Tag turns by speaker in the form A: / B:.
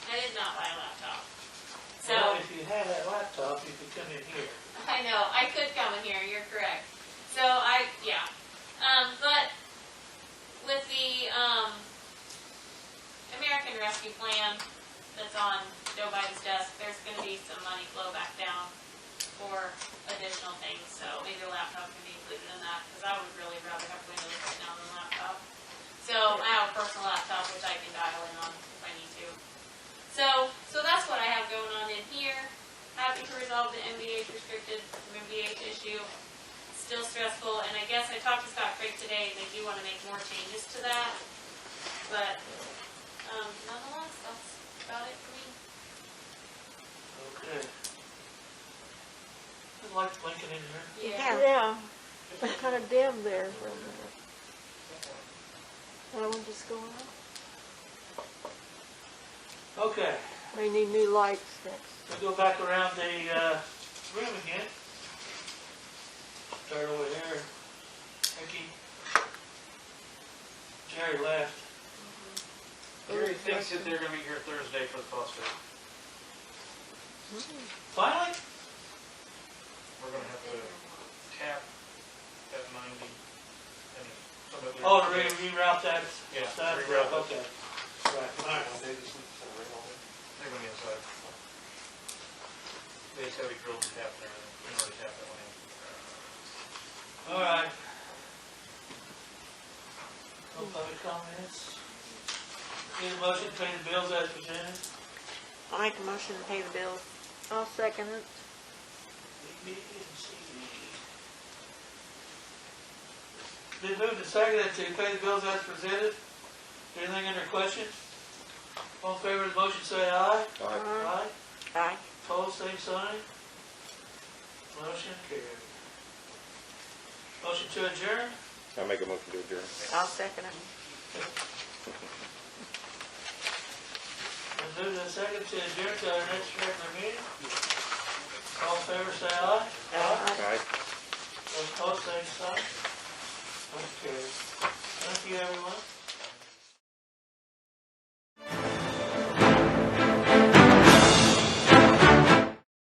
A: you have that laptop, you could come in here.
B: I know, I could come in here, you're correct. So I, yeah, um, but with the, um, American Rescue Plan that's on Joe Biden's desk, there's gonna be some money flow back down for additional things, so maybe a laptop can be included in that, because I would really rather have Windows right now than a laptop. So I have a personal laptop, which I can dial in on if I need to. So, so that's what I have going on in here happy to resolve the MBH restricted, MBH issue. Still stressful, and I guess I talked to Scott Craig today, they do wanna make more changes to that. But, um, nonetheless, that's about it for me.
A: Okay. I'd like Lincoln in here.
C: Yeah, I kind of dim there for a minute. That one just going up.
A: Okay,
C: They need new lights next.
A: we go back around the, uh, room again. Start over here. Ricky. Jerry left.
D: Gary thinks that they're gonna be here Thursday for the phosphate. Mm-hmm.
A: Finally?
D: We're gonna have to tap that ninety and some of the.
A: Oh, to re- reroute that
D: Yeah,
A: stuff?
D: reroute
A: Okay.
D: it.
A: Right, all right.
D: They're gonna be inside. They just have a drill and tap there, and we already tapped that one in.
A: All right. No public comments? Need a motion to pay the bills as presented?
C: I'll make a motion to pay the bills. I'll second it.
A: Been moved and seconded to pay the bills as presented. Anything under question? All in favor of the motion, say aye.
C: Aye. Aye.
A: Pose same sign. Motion carried. Motion to adjourn?
E: I make a motion to adjourn.
C: I'll second it.
A: Been moved and seconded to adjourn to our next regular meeting. All in favor, say aye.
C: Aye.
E: Aye.
A: Those opposed, same sign.